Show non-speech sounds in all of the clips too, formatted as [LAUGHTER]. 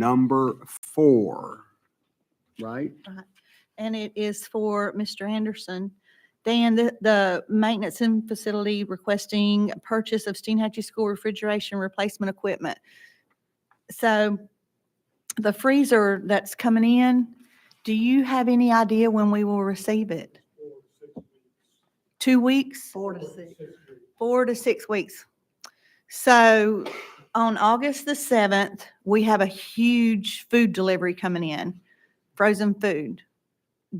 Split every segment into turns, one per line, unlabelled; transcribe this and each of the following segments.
number four, right?
and it is for Mr. Anderson. Dan, the, the maintenance and facility requesting purchase of Steenhatchee School refrigeration replacement equipment. So the freezer that's coming in, do you have any idea when we will receive it? Two weeks?
Four to six.
four to six weeks. So on August the seventh, we have a huge food delivery coming in, frozen food.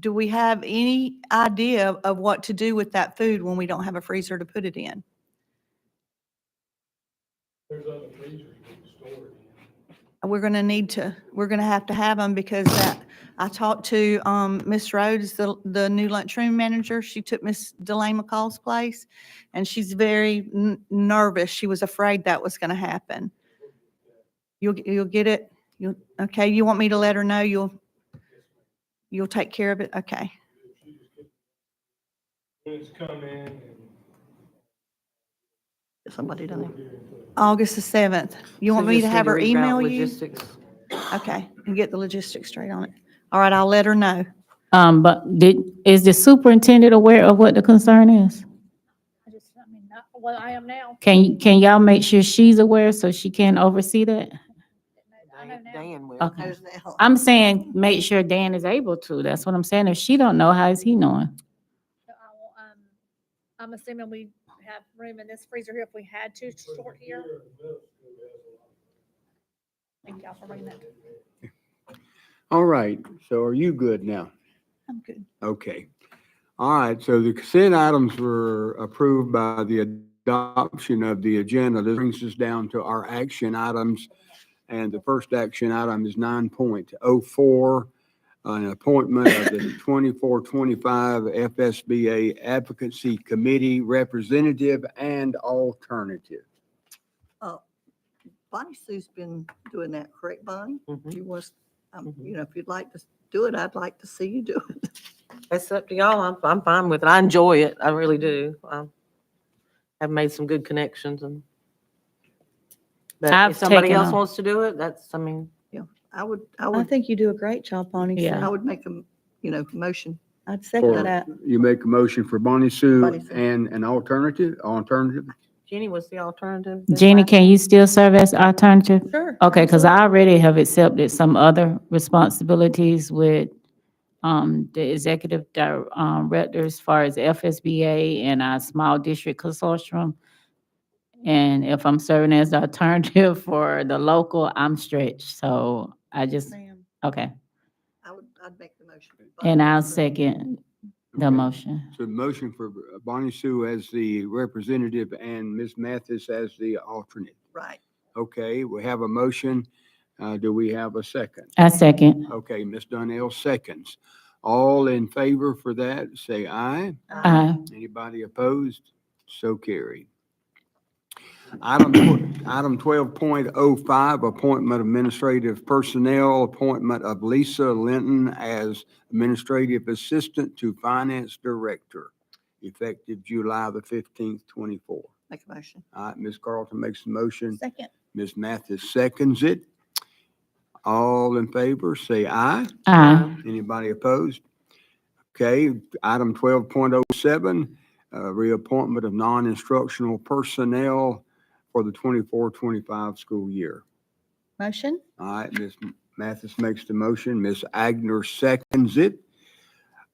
Do we have any idea of what to do with that food when we don't have a freezer to put it in?
There's other freezers you can store it in.
We're gonna need to, we're gonna have to have them because that, I talked to, um, Ms. Rhodes, the, the new lunchroom manager. She took Miss Delane McCall's place and she's very n- nervous. She was afraid that was gonna happen. You'll, g- you'll get it? You'll, okay, you want me to let her know you'll, you'll take care of it? Okay.
If you just get- When it's come in and.
Somebody done it.
August the seventh. You want me to have her email you?
Logistics.
Okay, and get the logistics straight on it. All right, I'll let her know.
Um, but did, is the superintendent aware of what the concern is?
I just, I mean, not, well, I am now.
Can, can y'all make sure she's aware so she can oversee that?
I know now.
Dan will.
Okay.
Knows now.
I'm saying, make sure Dan is able to. That's what I'm saying. If she don't know, how is he knowing?
So I will, um, I'm assuming we have room in this freezer here if we had to short here. Thank y'all for bringing that.
All right, so are you good now?
I'm good.
Okay. All right, so the consent items were approved by the adoption of the agenda. This brings us down to our action items. And the first action item is nine point oh four, an appointment of the twenty-four, twenty-five FSBA Advocacy Committee Representative and Alternative.
Bonnie Sue's been doing that, correct, Bonnie?
Mm-hmm.
You was, um,
Mm-hmm.
Mhm.
you know, if you'd like to do it, I'd like to see you do it.
It's up to y'all. I'm, I'm fine with it. I enjoy it. I really do. Um, I've made some good connections and. But
I've
if somebody
taken
else
a-
wants to do it, that's, I mean,
I would, I
I
would,
think you do a great job, Bonnie. so
Yeah.
I would make a, you know, motion.
I'd
For-
second that.
You make a motion for Bonnie Sue
Bonnie Sue.
and an alternative, alternative?
Jenny was the alternative. this
Jeannie,
time.
can you still serve as alternative?
Sure.
Okay, because I already have accepted some other responsibilities with um, the executive dir- um, director as far as FSBA and our small district consortium. And if I'm serving as the alternative [LAUGHS] for the local, I'm stretched. So I just, okay.
I would, I'd make the motion.
And I'll
Bonnie Sue.
second the
Okay.
motion.
So the motion for Bonnie Sue as the representative and Ms. Mathis as the alternate.
Right.
Okay, we have a motion. Uh, do we have a second?
I second.
Okay, Ms. Donnell seconds. All in favor for that, say aye.
Aye.
Anybody opposed? So carried. Item, tw- item twelve point oh five, appointment of administrative personnel, appointment of Lisa Linton as administrative assistant to finance director, effective July the fifteenth, twenty-four.
Make a motion.
All right, Ms. Carlton makes the motion.
Second.
Ms. Mathis seconds it. All in favor, say aye.
Aye.
Um,
Anybody opposed? Okay, item twelve point oh seven, uh, reappointment of non-instructional personnel for the 24-25 school year.
Motion?
All right, Ms. Mathis makes the motion, Ms. Agner seconds it.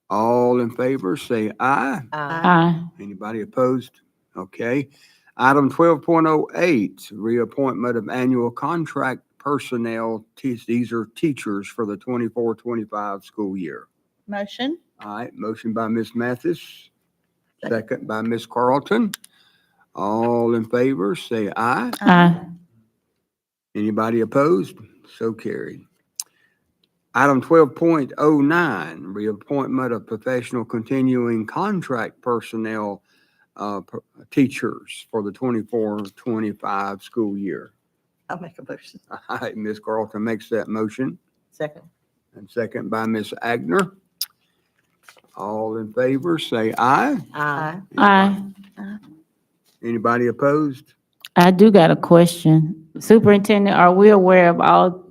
All in favor, say aye.
Uh,
Aye.
Anybody opposed? Okay. Item twelve point oh eight, reappointment of annual contract personnel. Te- These are teachers for the 24-25 school year.
Motion?
All right, motion by Ms. Mathis,
Second.
second by Ms. Carlton. All in favor, say aye.
Aye.
Anybody opposed? So carried. Item twelve point oh nine, reappointment of professional continuing contract personnel, uh, per- teachers for the 24-25 school year. [LAUGHS]
I'll make a motion.
All right, Ms. Carlton makes that motion.
second.
And second by Ms. Agner. All in favor, say aye.
Uh,
Aye.
Anybody opposed?
I do got a question. Superintendent, are we aware of all